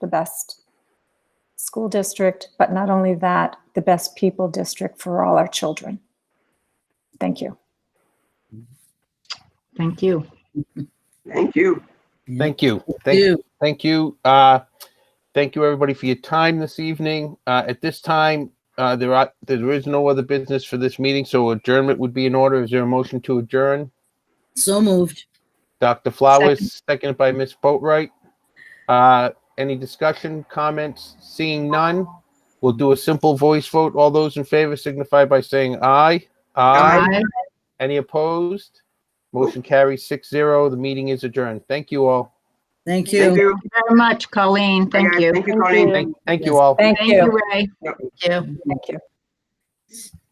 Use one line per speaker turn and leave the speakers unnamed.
the best school district, but not only that, the best people district for all our children. Thank you.
Thank you.
Thank you.
Thank you. Thank you. Thank you. Uh, thank you, everybody, for your time this evening. Uh, at this time, uh, there are there is no other business for this meeting, so adjournment would be in order. Is there a motion to adjourn?
So moved.
Dr. Flowers, seconded by Ms. Boatright. Uh, any discussion, comments? Seeing none, we'll do a simple voice vote. All those in favor signify by saying aye. Aye.
Bye.
Any opposed? Motion carries six zero. The meeting is adjourned. Thank you all.
Thank you.
Thank you.
Very much, Colleen. Thank you.
Thank you, Colleen.
Thank, thank you all.
Thank
Thank
you.
you, Ray.
Yep.
Thank you.
Thank you.